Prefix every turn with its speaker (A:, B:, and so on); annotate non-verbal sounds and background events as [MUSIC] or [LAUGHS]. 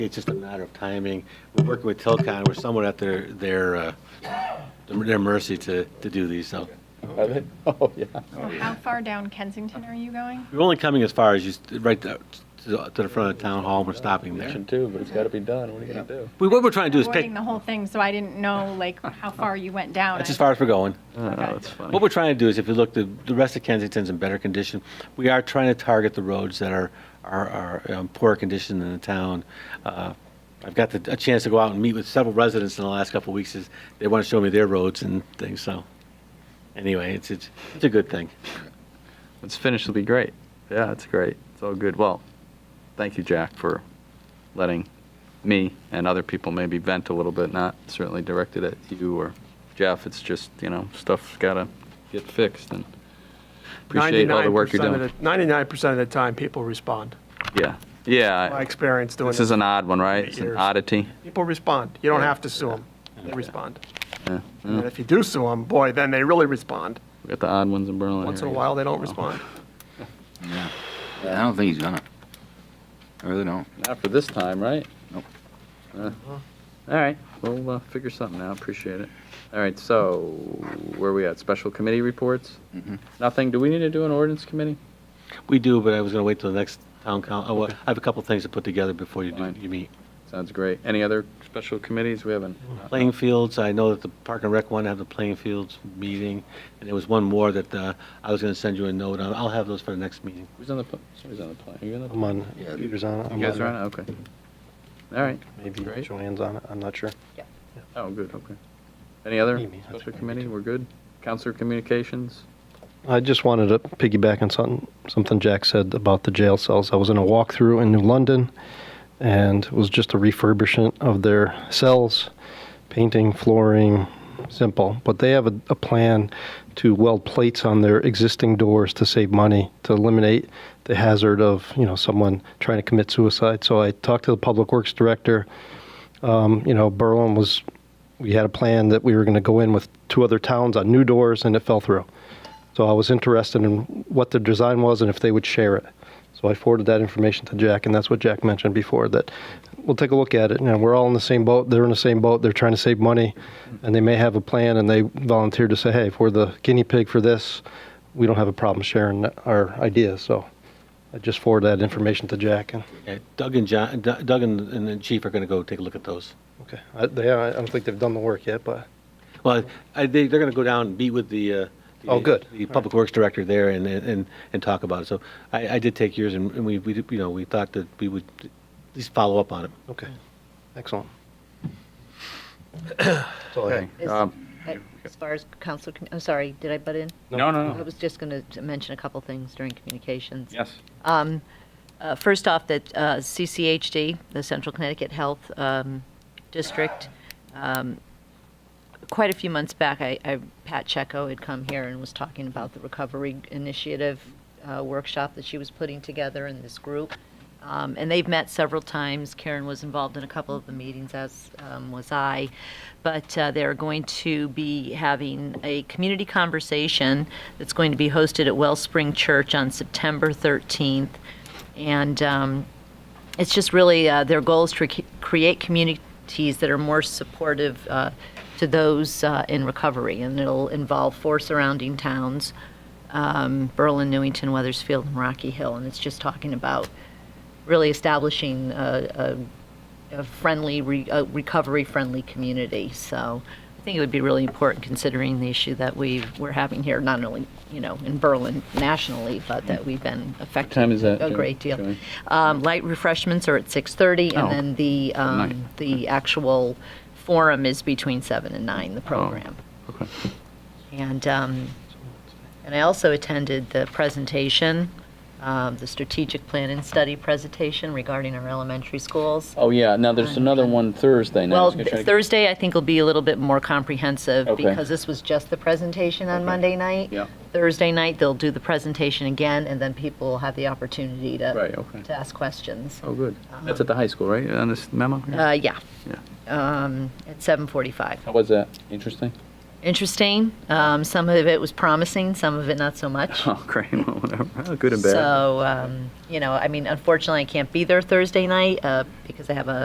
A: It's just a matter of timing. We're working with Tilcon, we're somewhat at their, their, uh, their mercy to, to do these, so.
B: Are they? [LAUGHS] Oh, yeah.
C: So how far down Kensington are you going?
A: We're only coming as far as you, s- right to to the front of town hall, we're stopping there.
B: Mission two, but it's got to be done. What are you going to do?
A: We- What we're trying to do is pick,
C: Avoiding the whole thing, so I didn't know like how far you went down.
A: that's as far as we're going.
C: Okay.
A: What we're trying to do is, if you look, the, the rest of Kensington's in better condition. We are trying to target the roads that are, are, are in poorer condition in the town. Uh, I've got the, a chance to go out and meet with several residents in the last couple of weeks, is they want to show me their roads and things, so. Anyway, it's, it's, it's a good thing.
D: It's finished. Will be great. Yeah, it's great. It's all good. Well, thank you, Jack, for letting me and other people maybe vent a little bit. Not certainly directed at you or Jeff. It's just you know stuff's gotta get fixed and appreciate all the work you're
E: 99% of
D: doing.
E: the- 99% of the time, people respond.
D: Yeah, yeah.
E: My experience doing
D: this is
E: this.
D: an odd one, right?
E: eight
D: It's an
E: years.
D: oddity.
E: People respond. You don't
D: Yeah.
E: have to sue them. They respond.
D: Yeah.
E: And then
D: yeah.
E: if you do sue them, boy, then they really respond.
D: We got the odd ones in Berlin.
E: Once
D: here,
E: in a
D: I guess.
E: while, they don't respond.
F: I don't think he's gonna. I really don't.
D: Not for this time, right?
F: Nope.
D: Uh, All right, we'll uh, figure something out, appreciate it. All right, so where are we at? Special committee reports?
F: Mhm.
D: Nothing, do we need to do an ordinance committee?
A: We do, but I was going to wait till the next town council, oh, well, I have a couple of things to put together before you do,
D: Fine.
A: you meet.
D: Sounds great. Any other special committees? We haven't.
A: Playing fields, I know that the Park and Rec one have the playing fields meeting, and there was one more that, uh, I was going to send you a note on. I'll have those for the next meeting.
D: Who's on the, pl- somebody's on the plan, are you on the?
G: I'm on,
F: Yeah.
G: Peter's on it. I'm
D: You guys are
G: on
D: on it, okay. All right,
G: Maybe
D: Great.
G: Joanne's on it, I'm not sure.
D: oh, good, okay. Any other
G: Maybe, that's
D: special
G: maybe
D: committee? We're good? Counselor Communications?
G: I just wanted to piggyback on something, something Jack said about the jail cells. I was in a walkthrough in New London, and it was just a refurbishment of their cells, painting, flooring, simple. But they have a, a plan to weld plates on their existing doors to save money, to eliminate the hazard of you know someone trying to commit suicide. So I talked to the public works director. Um, you know, Berlin was. We had a plan that we were going to go in with two other towns on new doors, and it fell through. So I was interested in what the design was and if they would share it. So I forwarded that information to Jack, and that's what Jack mentioned before, that we'll take a look at it. You know, we're all in the same boat, they're in the same boat, they're trying to save money, and they may have a plan, and they volunteered to say, hey, if we're the guinea pig for this, we don't have a problem sharing our ideas, so I just forwarded that information to Jack, and,
A: Yeah, Doug and John, Doug Doug and, and the chief are going to go take a look at those.
G: okay. I, they, I don't think they've done the work yet, but
A: Well, I, they, they're going to go down and meet with the. Uh,
G: Oh, good.
A: The public works director there and, and, and talk about it. So I, I did take yours and, and we, we, did- you know, we thought that we would at least follow up on it.
G: Okay, excellent. That's all I have.
H: Is-
D: Um,
H: uh, As far as council, commu- I'm sorry, did I butt in?
D: No, no,
H: I
D: no.
H: was just going to mention a couple things during communications.
D: Yes.
H: Uh, First off, that uh, CCHD, the Central Connecticut Health um, District, um, quite a few months back, I, I- Pat Checo had come here and was talking about the Recovery Initiative uh, workshop that she was putting together in this group. Um, And they've met several times. Karen was involved in a couple of the meetings, as um, was I. But uh, they're going to be having a community conversation that's going to be hosted at Wellspring Church on September 13th. And um, it's just really, uh, their goal is to rec- create communities that are more supportive uh, to those uh, in recovery. And it'll involve four surrounding towns, um, Berlin, Newington, Weathersfield, and Rocky Hill. And it's just talking about really establishing a, a, a friendly, re, a recovery-friendly community. So I think it would be really important considering the issue that we we're having here, not only you know in Berlin nationally, but that we've been affected
D: time is that,
H: a
D: Jan-
H: great deal.
D: Joanne?
H: Um, light refreshments are at 6:30,
D: Oh,
H: and then the
D: night.
H: um, the actual forum is between seven and nine.
D: Oh.
H: The program.
D: okay.
H: And, um, and I also attended the presentation, um, the strategic plan and study presentation regarding our elementary schools.
D: Oh, yeah, now there's another one Thursday night. I
H: Well,
D: was gonna try to-
H: Thursday, I think, will be a little bit more comprehensive
D: Okay.
H: because this was just the presentation on
D: Okay.
H: Monday night.
D: Yeah.
H: Thursday night, they'll do the presentation again, and then people will have the opportunity
D: Right,
H: to,
D: okay.
H: to ask questions.
D: Oh, good. That's at the high school, right? On this memo? here?
H: Uh, yeah.
D: Yeah.
H: Um, at seven forty-five.
D: How was that? Interesting? [LAUGHS]
H: Interesting. Um, some of it was promising, some of it not so
D: [LAUGHS]
H: much.
D: Oh, great, well, whatever. Oh, Good and bad.
H: So, um, you know, I mean, unfortunately, I can't be there Thursday night, uh, because I have a